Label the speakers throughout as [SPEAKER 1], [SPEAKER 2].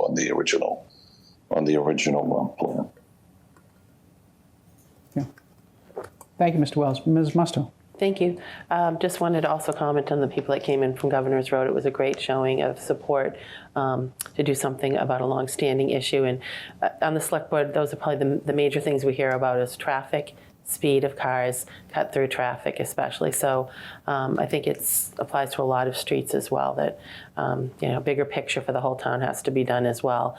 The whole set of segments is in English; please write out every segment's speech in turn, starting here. [SPEAKER 1] on the original, on the original uh, plan.
[SPEAKER 2] Thank you, Mr. Wells. Ms. Musto.
[SPEAKER 3] Thank you. Um, Just wanted to also comment on the people that came in from Governor's Road. It was a great showing of support um, to do something about a longstanding issue. And uh, on the select board, those are probably the- the major things we hear about is traffic, speed of cars, cut-through traffic especially. So um, I think it's, applies to a lot of streets as well, that, um, you know, bigger picture for the whole town has to be done as well.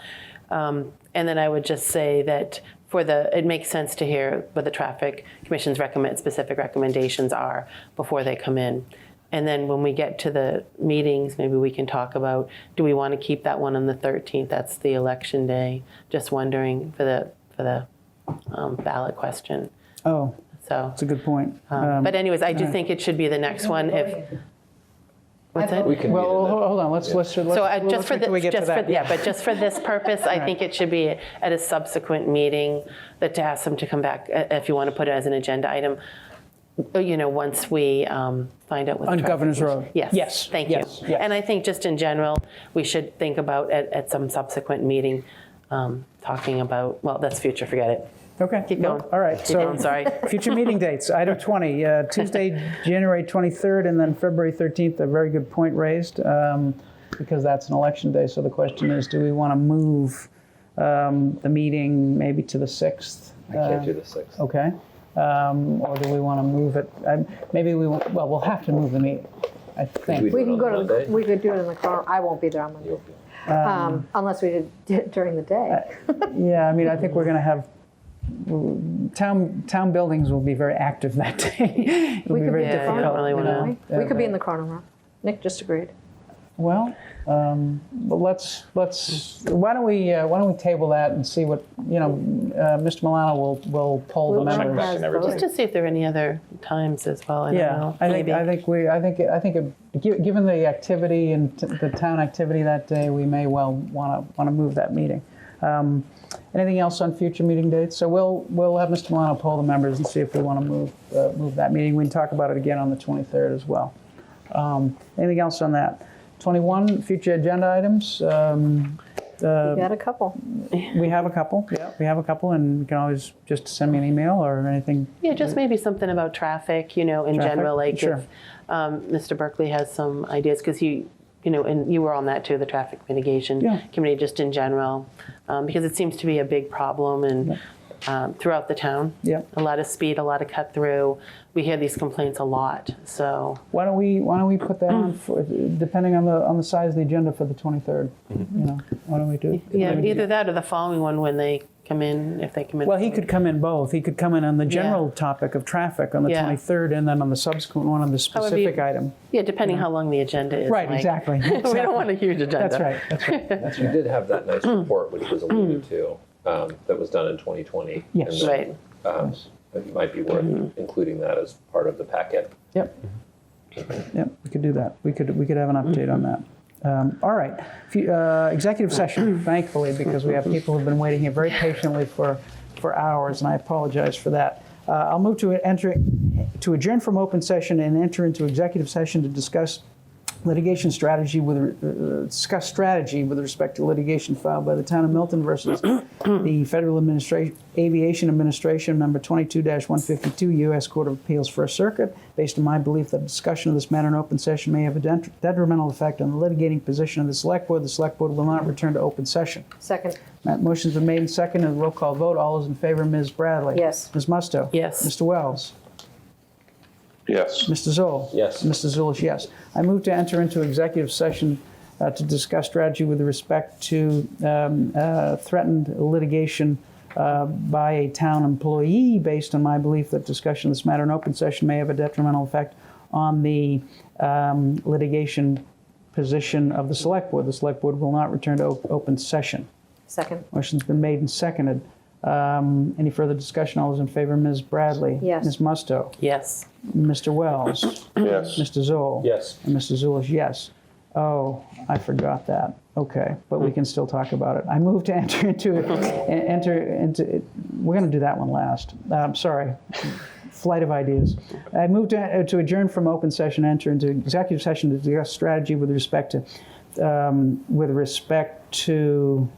[SPEAKER 3] Um, And then I would just say that for the, it makes sense to hear what the traffic commission's recommend, specific recommendations are before they come in. And then when we get to the meetings, maybe we can talk about, do we want to keep that one on the 13th? That's the election day. Just wondering for the, for the um, ballot question,
[SPEAKER 2] Oh,
[SPEAKER 3] so.
[SPEAKER 2] that's a good point.
[SPEAKER 3] um,
[SPEAKER 2] Um,
[SPEAKER 3] But anyways, I do think it should be the next one if. What's that?
[SPEAKER 4] We can.
[SPEAKER 2] Well,
[SPEAKER 4] meet in
[SPEAKER 2] ho-
[SPEAKER 4] the-
[SPEAKER 2] hold on, let's, let's, let's.
[SPEAKER 3] So I- just for
[SPEAKER 2] wait till we
[SPEAKER 3] this,
[SPEAKER 2] get to
[SPEAKER 3] just for,
[SPEAKER 2] that.
[SPEAKER 3] yeah, but just for this purpose, I think it should be at a subsequent meeting that to ask them to come back, uh, if you want to put it as an agenda item, uh, you know, once we um, find out what. the
[SPEAKER 2] On
[SPEAKER 3] traffic
[SPEAKER 2] Governor's
[SPEAKER 3] is.
[SPEAKER 2] Road.
[SPEAKER 3] Yes.
[SPEAKER 2] Yes,
[SPEAKER 3] Thank you.
[SPEAKER 2] yes, yes.
[SPEAKER 3] And I think just in general, we should think about at, at some subsequent meeting, um, talking about, well, that's future, forget it.
[SPEAKER 2] Okay.
[SPEAKER 3] Keep
[SPEAKER 2] no,
[SPEAKER 3] going.
[SPEAKER 2] All right,
[SPEAKER 3] Keep
[SPEAKER 2] so.
[SPEAKER 3] going, sorry.
[SPEAKER 2] Future meeting dates, item 20, uh, Tuesday, January 23rd, and then February 13th, a very good point raised, um, because that's an election day, so the question is, do we want to move um, the meeting maybe to the 6th?
[SPEAKER 4] I can't do the sixth.
[SPEAKER 2] Okay. Um, Or do we want to move it, um, maybe we, won't- well, we'll have to move the meeting, I think.
[SPEAKER 4] do
[SPEAKER 5] We
[SPEAKER 4] it
[SPEAKER 5] can
[SPEAKER 4] on
[SPEAKER 5] go to,
[SPEAKER 4] Monday?
[SPEAKER 5] the we could do it in the car, I won't be there on Monday,
[SPEAKER 4] You'll be-
[SPEAKER 5] Um, unless we did it during the day.
[SPEAKER 3] Uh,
[SPEAKER 2] Yeah, I mean, I think we're going to have, town, town buildings will be very active that day. It'll
[SPEAKER 5] We
[SPEAKER 2] be
[SPEAKER 5] could
[SPEAKER 2] very
[SPEAKER 5] be in the
[SPEAKER 3] Yeah, you
[SPEAKER 2] difficult.
[SPEAKER 3] don't really
[SPEAKER 5] Chrono
[SPEAKER 2] you know?
[SPEAKER 5] Room.
[SPEAKER 3] wanna-
[SPEAKER 5] We could be in the Chrono Room. Nick just agreed.
[SPEAKER 2] Well, um, but let's, let's, why don't we, uh, why don't we table that and see what, you know, uh, Mr. Milano will, will poll the
[SPEAKER 5] We'll check
[SPEAKER 2] members.
[SPEAKER 5] back and everything.
[SPEAKER 3] Just to see if there are any other times as well, I don't
[SPEAKER 2] Yeah,
[SPEAKER 3] know,
[SPEAKER 2] I think,
[SPEAKER 3] maybe.
[SPEAKER 2] I think we, I think, I think, it- gi- given the activity and t- the town activity that day, we may well want to, want to move that meeting. Um, Anything else on future meeting dates? So we'll, we'll have Mr. Milano poll the members and see if we want to move, uh, move that meeting. We can talk about it again on the 23rd as well. Um, Anything else on that? 21, future agenda items. Um,
[SPEAKER 5] You got a couple.
[SPEAKER 2] We have a couple, yeah, we have a couple, and you can always just send me an email or anything.
[SPEAKER 3] Yeah, just maybe something about traffic, you know, in
[SPEAKER 2] Traffic?
[SPEAKER 3] general, like
[SPEAKER 2] Sure.
[SPEAKER 3] if um, Mr. Berkeley has some ideas, because you, you know, and you were on that too, the traffic mitigation
[SPEAKER 2] Yeah.
[SPEAKER 3] committee, just in general, um, because it seems to be a big problem and um, throughout the town.
[SPEAKER 2] Yeah.
[SPEAKER 3] A lot of speed, a lot of cut through. We hear these complaints a lot, so
[SPEAKER 2] Why don't we, why don't we put that on for, depending on the, on the size of the agenda for the 23rd? You know, why don't we do?
[SPEAKER 3] yeah, either that or the following one when they come in, if they come in.
[SPEAKER 2] Well, he could come in both. He could come in on the general topic of traffic on the
[SPEAKER 3] Yeah.
[SPEAKER 2] 23rd, and then on the subsequent one on the
[SPEAKER 3] However you-
[SPEAKER 2] specific item.
[SPEAKER 3] yeah, depending how long the agenda is.
[SPEAKER 2] Right,
[SPEAKER 3] like-
[SPEAKER 2] exactly.
[SPEAKER 3] we don't want a huge agenda.
[SPEAKER 2] That's right, that's right.
[SPEAKER 4] You did have that nice report, which was alluded to, um, that was done in 2020.
[SPEAKER 2] Yes.
[SPEAKER 4] and that,
[SPEAKER 3] Right.
[SPEAKER 4] um, It might be worth including that as part of the packet.
[SPEAKER 2] Yep. Yep, we could do that. We could, we could have an update on that. Um, All right, If you- uh, executive session, thankfully, because we have people who've been waiting here very patiently for, for hours, and I apologize for that. Uh, I'll move to enter, to adjourn from open session and enter into executive session to discuss litigation strategy with, uh, discuss strategy with respect to litigation filed by the town of Milton versus the Federal Administration, Aviation Administration, number 22-152, U.S. Court of Appeals First Circuit. Based on my belief that discussion of this matter in open session may have a dent- detrimental effect on the litigating position of the select board, the select board will not return to open session.
[SPEAKER 5] Second.
[SPEAKER 2] That motion's been made and seconded, roll call vote. All those in favor, Ms. Bradley?
[SPEAKER 5] Yes.
[SPEAKER 2] Ms. Musto?
[SPEAKER 3] Yes.
[SPEAKER 2] Mr. Wells?
[SPEAKER 1] Yes.
[SPEAKER 2] Mr. Zoll?
[SPEAKER 4] Yes.
[SPEAKER 2] Mr. Zulish, yes. I move to enter into executive session uh, to discuss strategy with respect to um, uh, threatened litigation uh, by a town employee based on my belief that discussion of this matter in open session may have a detrimental effect on the um, litigation position of the select board. The select board will not return to op- open session.
[SPEAKER 5] Second.
[SPEAKER 2] Motion's been made and seconded. Um, Any further discussion? All those in favor, Ms. Bradley?
[SPEAKER 5] Yes.
[SPEAKER 2] Ms. Musto?
[SPEAKER 3] Yes.
[SPEAKER 2] Mr. Wells?
[SPEAKER 1] Yes.
[SPEAKER 2] Mr. Zoll?
[SPEAKER 4] Yes.
[SPEAKER 2] And Mr. Zulish, yes. Oh, I forgot that. Okay, but we can still talk about it. I moved to enter into, enter into, we're going to do that one last. Um sorry, flight of ideas. I moved to, uh, to adjourn from open session, enter into executive session to discuss strategy with respect to, um, with respect to